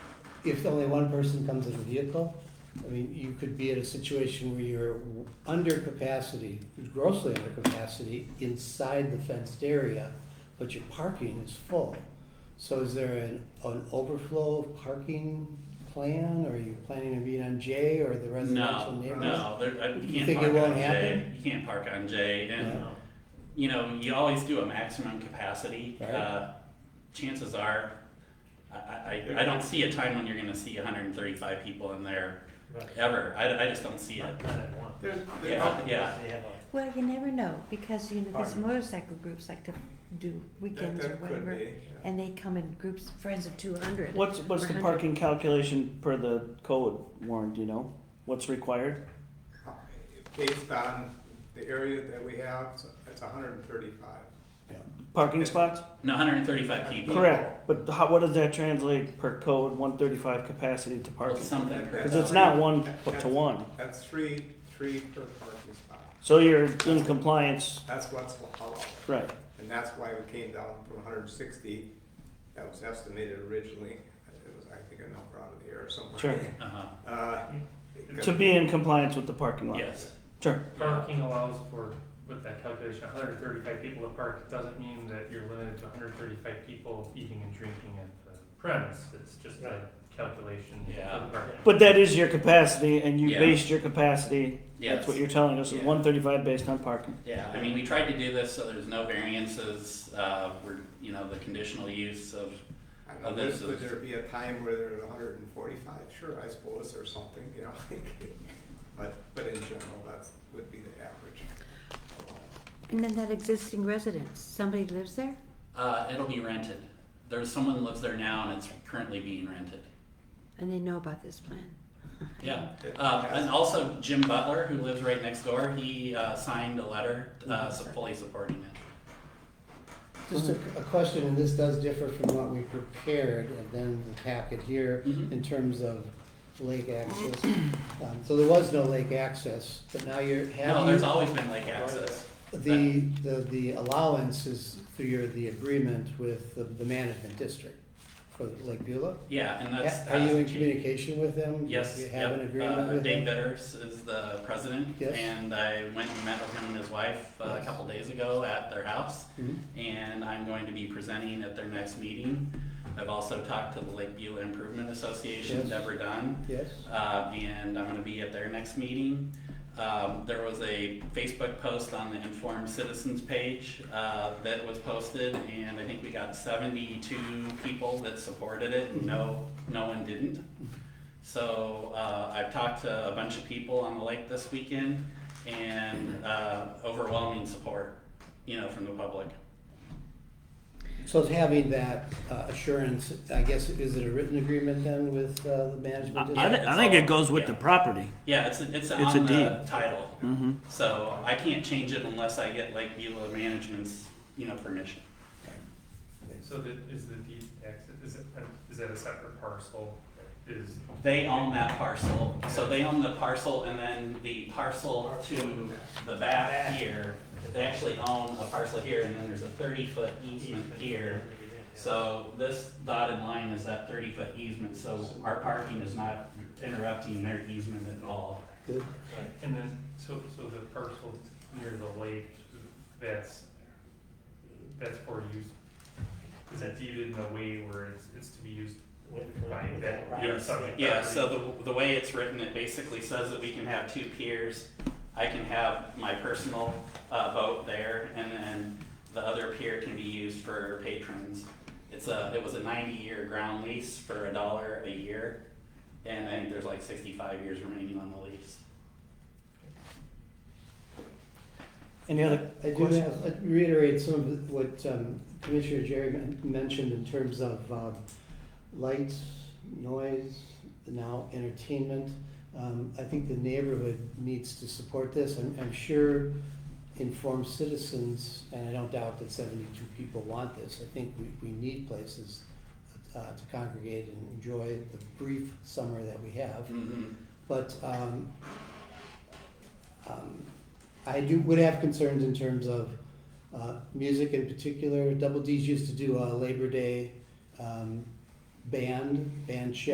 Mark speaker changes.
Speaker 1: if only one person comes in the vehicle, I mean, you could be in a situation where you're under capacity, grossly under capacity, inside the fenced area, but your parking is full. So is there an, an overflow parking plan, or are you planning to be on J or the residential
Speaker 2: No,
Speaker 1: neighborhood?
Speaker 2: no, there, I,
Speaker 1: You
Speaker 2: you can't
Speaker 1: think it
Speaker 2: park
Speaker 1: won't
Speaker 2: on J,
Speaker 1: happen?
Speaker 2: you can't park on J, and,
Speaker 1: No.
Speaker 2: you know, you always do a maximum capacity.
Speaker 1: Right.
Speaker 2: Uh, Chances are, I, I, I- I don't see a time when you're gonna see hundred and thirty-five people in there, ever, I, I just don't see it.
Speaker 3: There's,
Speaker 2: Yeah, yeah.
Speaker 4: Well, you never know, because, you know, these
Speaker 3: Pardon?
Speaker 4: motorcycle groups like to do weekends or whatever, and they come in groups, friends of two hundred.
Speaker 5: What's, what's the parking calculation per the code, Warren, do you know? What's required?
Speaker 3: Based on the area that we have, it's- it's hundred and thirty-five.
Speaker 5: Parking spots?
Speaker 2: No, hundred and thirty-five people.
Speaker 5: Correct, but how, what does that translate per code, one thirty-five capacity to
Speaker 2: Or
Speaker 5: parking?
Speaker 2: something.
Speaker 5: Cause it's not one to one,
Speaker 3: That's three, three per parking spot.
Speaker 5: so you're in compliance,
Speaker 3: That's what's allowed,
Speaker 5: right,
Speaker 3: and that's why we came down from hundred and sixty. That was estimated originally, it was, I think, a number out of the air somewhere.
Speaker 5: Sure.
Speaker 2: Uh-huh,
Speaker 3: Uh,
Speaker 5: to be in compliance with the parking lot.
Speaker 2: yes,
Speaker 5: Sure,
Speaker 6: Parking allows for, with that calculation, hundred and thirty-five people to park, It doesn't mean that you're limited to hundred and thirty-five people eating and drinking at the premise, it's just a calculation. for the
Speaker 2: Yeah.
Speaker 6: parking.
Speaker 5: but that is your capacity, and you
Speaker 2: Yeah.
Speaker 5: based your capacity, that's
Speaker 2: Yes.
Speaker 5: what you're telling us, is
Speaker 2: Yeah.
Speaker 5: one thirty-five based on parking.
Speaker 2: yeah, I mean, we tried to do this so there's no variances, uh, we're, you know, the conditional use of,
Speaker 3: I don't know,
Speaker 2: Oh, this
Speaker 3: would
Speaker 2: is-
Speaker 3: there be a time where there's hundred and forty-five? Sure, I suppose, or something, you know? But, but in general, that's, would be the average.
Speaker 4: And then that existing residence, somebody lives there?
Speaker 2: uh, it'll be rented. There's someone lives there now and it's currently being rented.
Speaker 4: And they know about this plan.
Speaker 2: Yeah, uh, and also Jim Butler, who lives right next door, he, uh, signed a letter, uh,
Speaker 1: Mm-hmm.
Speaker 2: so fully supporting it.
Speaker 1: Just a, a question, and this does differ from what we prepared and then the packet here
Speaker 2: Mhm.
Speaker 1: in terms of lake access. Um, So there was no lake access, but now you're,
Speaker 2: No,
Speaker 1: have
Speaker 2: there's
Speaker 1: you,
Speaker 2: always been lake access.
Speaker 1: the, the, the allowance is through your, the agreement with the, the management district for Lake Beulah?
Speaker 2: Yeah, and that's.
Speaker 1: Are you in communication with them?
Speaker 2: Yes,
Speaker 1: You have
Speaker 2: yep,
Speaker 1: an agreement
Speaker 2: uh,
Speaker 1: with
Speaker 2: Dave
Speaker 1: them?
Speaker 2: Bitters is the president.
Speaker 1: Yes.
Speaker 2: And I went and met with him and his wife uh, a
Speaker 1: Yes.
Speaker 2: couple days ago at their house.
Speaker 1: Mhm.
Speaker 2: And I'm going to be presenting at their next meeting. I've also talked to the Lake Beulah Improvement Association,
Speaker 1: Yes.
Speaker 2: Deborah Dunn.
Speaker 1: Yes,
Speaker 2: uh, and I'm going to be at their next meeting. Um, there was a Facebook post on the Informed Citizens page uh, that was posted, and I think we got 72 people that supported it, and no, no one didn't. So uh, I've talked to a bunch of people on the lake this weekend, and uh, overwhelming support, you know, from the public.
Speaker 1: so it's having that uh, assurance, I guess, is it a written agreement then with uh, the management
Speaker 5: I, I
Speaker 1: district?
Speaker 5: thi- I think it goes with the property.
Speaker 2: Yeah, it's it's,
Speaker 5: a
Speaker 2: on the
Speaker 5: deed.
Speaker 2: title,
Speaker 5: Mm-hmm.
Speaker 2: so I can't change it unless I get Lake Beulah Management's you know permission.
Speaker 6: So that, is the deed tax, is it, uh, is that a separate parcel, is,
Speaker 2: They own that parcel, so they own the parcel and then the parcel to the back here, they actually own a parcel here and then there's a thirty foot easement here. So this dotted line is that thirty foot easement, so our parking is not interrupting their easement at all.
Speaker 1: Good.
Speaker 6: and then, so, so the parcel near the lake, that's, that's for use, is that deeded in a way where it's, it's to be used by that, your subject property?
Speaker 2: Yeah, so the, the way it's written, it basically says that we can have two piers. I can have my personal, uh, boat there, and then the other pier can be used for patrons. It's a, it was a ninety-year ground lease for a dollar a year, and I think there's like sixty-five years remaining on the lease.
Speaker 5: Any other
Speaker 1: I do
Speaker 5: questions?
Speaker 1: have, I'd reiterate some of what um, Commissioner Jerry men- mentioned in terms of um, lights, noise, now entertainment. Um, I think the neighborhood needs to support this. I'm, I'm sure informed citizens, and I don't doubt that seventy-two people want this. I think we, we need places uh, to congregate and enjoy the brief summer that we have. But um, um, I do, would have concerns in terms of uh, music in particular. Double D's used to do a Labor Day um, band, band show.